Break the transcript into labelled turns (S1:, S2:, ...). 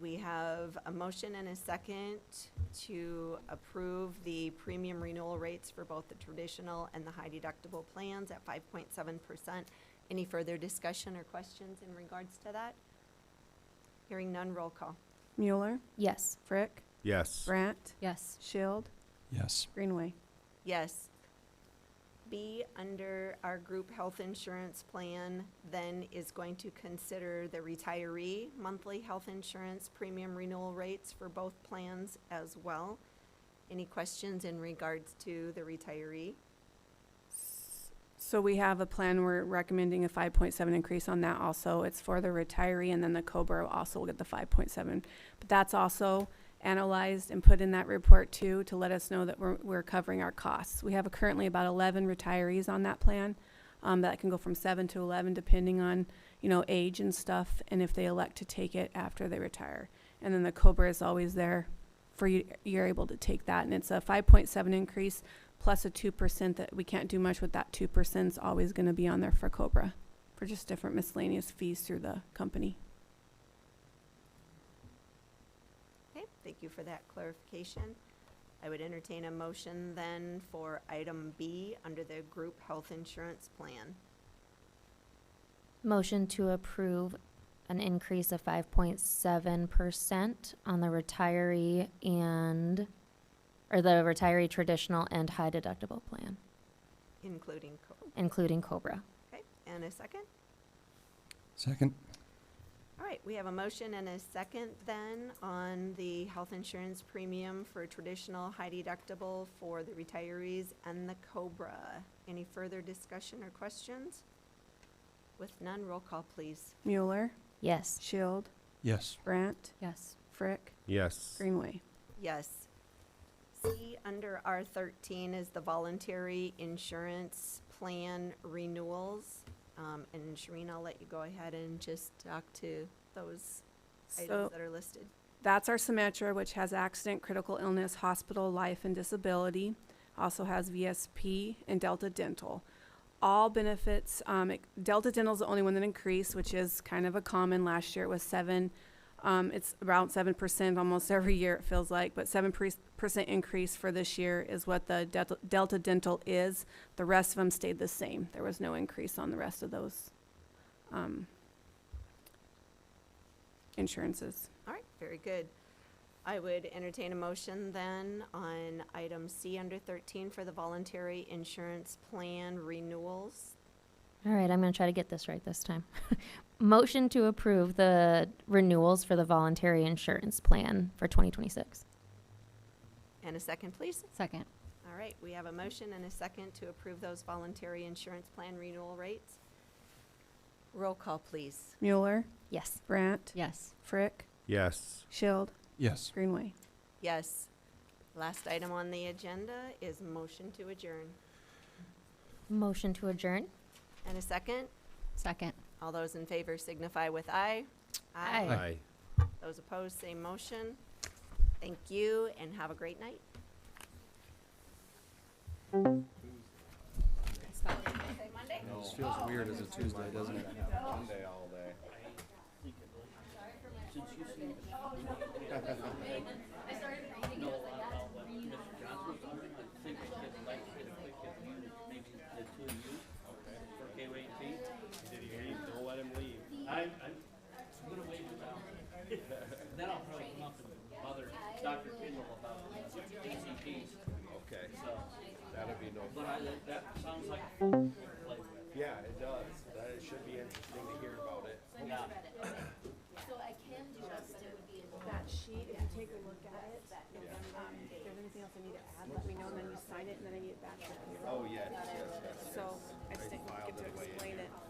S1: We have a motion and a second to approve the premium renewal rates for both the traditional and the high deductible plans at five point seven percent. Any further discussion or questions in regards to that? Hearing none, roll call.
S2: Mueller,
S3: Yes.
S2: Frick,
S4: Yes.
S2: Brant,
S3: Yes.
S2: Shield,
S5: Yes.
S2: Greenway.
S1: Yes. B, under our group health insurance plan, then is going to consider the retiree monthly health insurance premium renewal rates for both plans as well. Any questions in regards to the retiree?
S2: So we have a plan, we're recommending a five point seven increase on that also. It's for the retiree and then the Cobra also will get the five point seven. But that's also analyzed and put in that report too, to let us know that we're, we're covering our costs. We have currently about eleven retirees on that plan. Um, that can go from seven to eleven depending on, you know, age and stuff and if they elect to take it after they retire. And then the Cobra is always there for you, you're able to take that and it's a five point seven increase plus a two percent that we can't do much with that two percent is always gonna be on there for Cobra, for just different miscellaneous fees through the company.
S1: Okay, thank you for that clarification. I would entertain a motion then for item B under the group health insurance plan.
S3: Motion to approve an increase of five point seven percent on the retiree and, or the retiree traditional and high deductible plan,
S1: Including co-
S3: including COBRA.
S1: Okay, and a second?
S5: Second?
S1: All right, we have a motion and a second then on the health insurance premium for traditional high deductible for the retirees and the COBRA. Any further discussion or questions? With none, roll call, please.
S2: Mueller,
S3: Yes.
S2: Shield,
S5: Yes.
S2: Brant,
S3: Yes.
S2: Frick,
S4: Yes.
S2: Greenway.
S1: Yes. C, under R thirteen is the voluntary insurance plan renewals. Um, and Shereen, I'll let you go ahead and just talk to those
S2: So-
S1: items that are listed.
S2: That's our Symetra, which has accident, critical illness, hospital, life, and disability. Also has VSP and Delta Dental. All benefits, um, it- Delta Dental's the only one that increased, which is kind of a common. Last year it was seven. Um, it's around seven percent almost every year, it feels like, but seven percent increase for this year is what the Delta- Delta Dental is. The rest of them stayed the same. There was no increase on the rest of those, um, insurances.
S1: All right, very good. I would entertain a motion then on item C under 13 for the voluntary insurance plan renewals.
S3: All right, I'm gonna try to get this right this time. Motion to approve the renewals for the voluntary insurance plan for twenty twenty-six.
S1: And a second, please.
S3: Second.
S1: All right, we have a motion and a second to approve those voluntary insurance plan renewal rates. Roll call, please.
S2: Mueller,
S3: Yes.
S2: Brant,
S3: Yes.
S2: Frick,
S4: Yes.
S2: Shield,
S5: Yes.
S2: Greenway.
S1: Yes. Last item on the agenda is motion to adjourn.
S3: Motion to adjourn?
S1: And a second,
S3: Second.
S1: all those in favor signify with aye.
S3: Aye.
S4: Aye.
S1: Those opposed, same motion. Thank you and have a great night.
S4: That'd be no. But I, that, that sounds like. Yeah, it does. That, it should be interesting to hear about it.
S2: That sheet, if you take a look at it, um, if there's anything else I need to add, let me know, and then you sign it, and then I need it back.
S4: Oh, yeah, it does.
S2: So I just didn't get to explain it.